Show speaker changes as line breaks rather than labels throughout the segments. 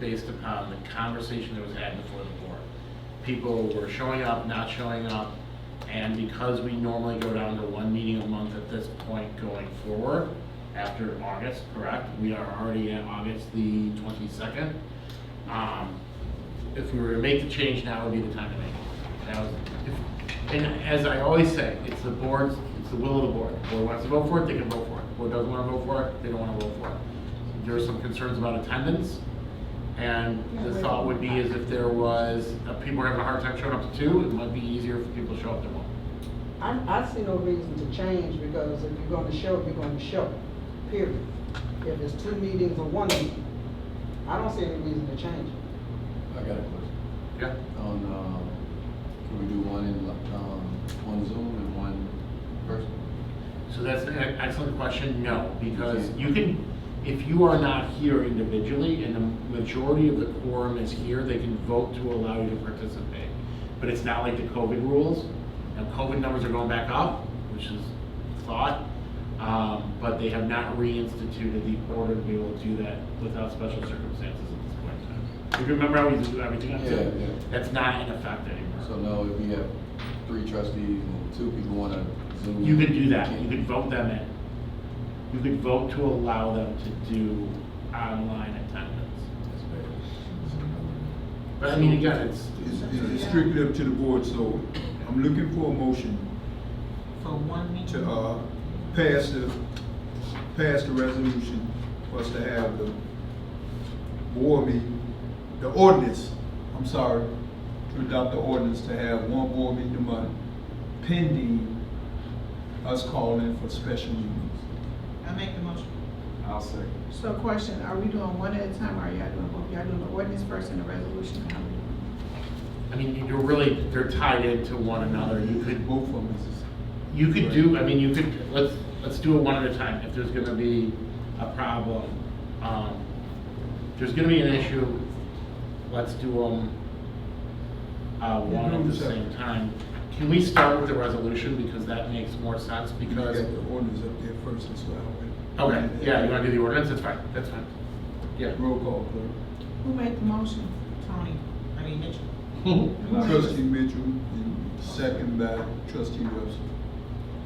based upon the conversation that was had before the board. People were showing up, not showing up, and because we normally go down to one meeting a month at this point going forward, after August, correct? We are already at August the twenty-second. Um, if we were to make the change, now would be the time to make it. That was, if, and as I always say, it's the board's, it's the will of the board. The board wants to vote for it, they can vote for it. Board doesn't wanna vote for it, they don't wanna vote for it. There are some concerns about attendance, and the thought would be is if there was, if people were having a hard time showing up to two, it might be easier for people to show up to one.
I, I see no reason to change, because if you're gonna show, you're gonna show, period. If it's two meetings or one meeting, I don't see any reason to change it.
I got a question.
Yeah?
On, um, can we do one in, um, one Zoom and one person?
So that's an e- excellent question, no, because you can, if you are not here individually, and the majority of the quorum is here, they can vote to allow you to participate. But it's not like the COVID rules, now COVID numbers are going back up, which is thought, um, but they have not reinstituted the order to be able to do that without special circumstances at this point in time. If you remember how we used to do everything on
Yeah,
Zoom?
yeah.
That's not in effect anymore.
So now if we have three trustees and two people wanna Zoom.
You could do that, you
can't-
could vote them in. You could vote to allow them to do online attendance.
That's
But I mean, again, it's,
It's, it's strictly up to the board, so I'm looking for a motion
For one meeting?
to, uh, pass the, pass the resolution for us to have the board meeting, the ordinance, I'm sorry, to adopt the ordinance to have one board meeting a month pending us calling for special meetings.
I make the motion.
I'll second.
So question, are we doing one at a time, or are y'all doing both? Y'all doing the ordinance first and the resolution? How we doing?
I mean, you're really, they're tied into one another. You could,
Both of them is
you could do, I mean, you could, let's, let's do it one at a time. If there's gonna be a problem, um, if there's gonna be an issue, let's do them uh, one at the same time. Can we start with the resolution because that makes more sense
You got
because
the ordinance up there first as well.
Okay, yeah, you wanna do the ordinance, that's fine, that's fine. Yeah.
Roll call, clerk.
Who made the motion?
Tony, I mean Mitchell.
Trustee Mitchell, and second by trustee Webster.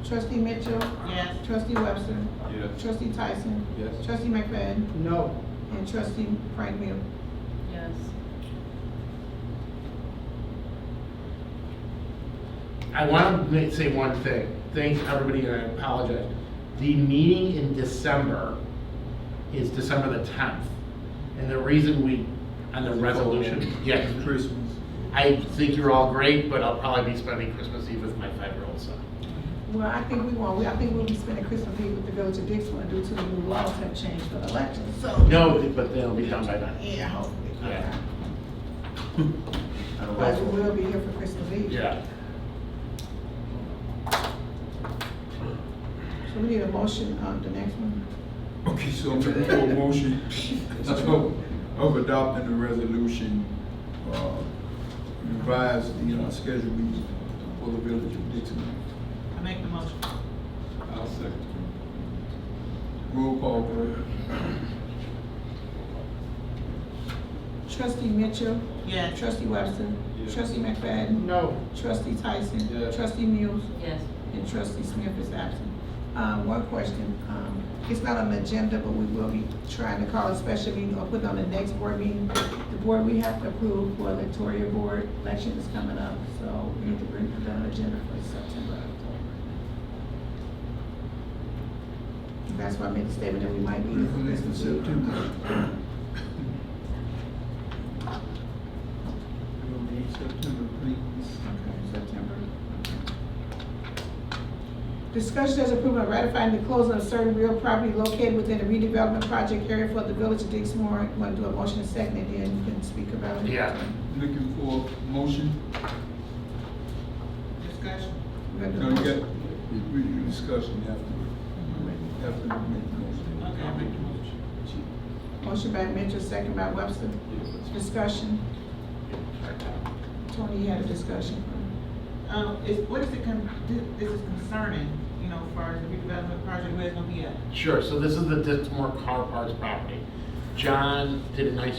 Trustee Mitchell?
Yes.
Trustee Webster?
Yes.
Trustee Tyson?
Yes.
Trustee McFadden?
No,
And trustee Frank Miller?
Yes.
I wanna ma- say one thing, thanks everybody, and I apologize. The meeting in December is December the tenth, and the reason we, on the resolution, yeah,
Christmas.
I think you're all great, but I'll probably be spending Christmas Eve with my five-year-old son.
Well, I think we want, we- I think we'll be spending Christmas Eve with the village of Dixmoor due to the new laws have changed for elections, so.
No, but they'll be done by then.
Yeah, hopefully.
Yeah.
But we will be here for Christmas Eve.
Yeah,
So we need a motion on the next one?
Okay, so I'm looking for a motion of, of adopting the resolution, uh, revise the, uh, schedule meeting for the village of Dixon.
I make the motion.
I'll second.
Roll call, clerk.
Trustee Mitchell?
Yes.
Trustee Webster?
Yes.
Trustee McFadden?
no.
Trustee Tyson? uh,
Yes.
Trustee Mills?
Yes.
And trustee Smith is absent. Um, one question, um, it's not on the agenda, but we will be trying to call a special meeting or put on the next board meeting. The board we have to approve for electoral board election is coming up, so we need to bring it on the agenda for September, October. That's why I made the statement that we might be.
For next in September. We'll be in September, please.
Okay, September. Discussion as approval of ratifying the closing of certain real property located within the redevelopment project area for the village of Dixmoor. Want to do a motion and second, and then you can speak about it.
yeah.
Looking for a motion?
Discussion.
We're gonna do
No,
a
you
motion.
got, we, we discussing after, after we make the motion.
Okay, I make the motion.
Motion by Mitchell, second by Webster. Discussion. Tony, you had a discussion.
Um, is, what is it con, thi- this is concerning, you know, as far as the redevelopment project, where it's gonna be at?
Sure, so this is the Dixmoor Car Parts property. John did a nice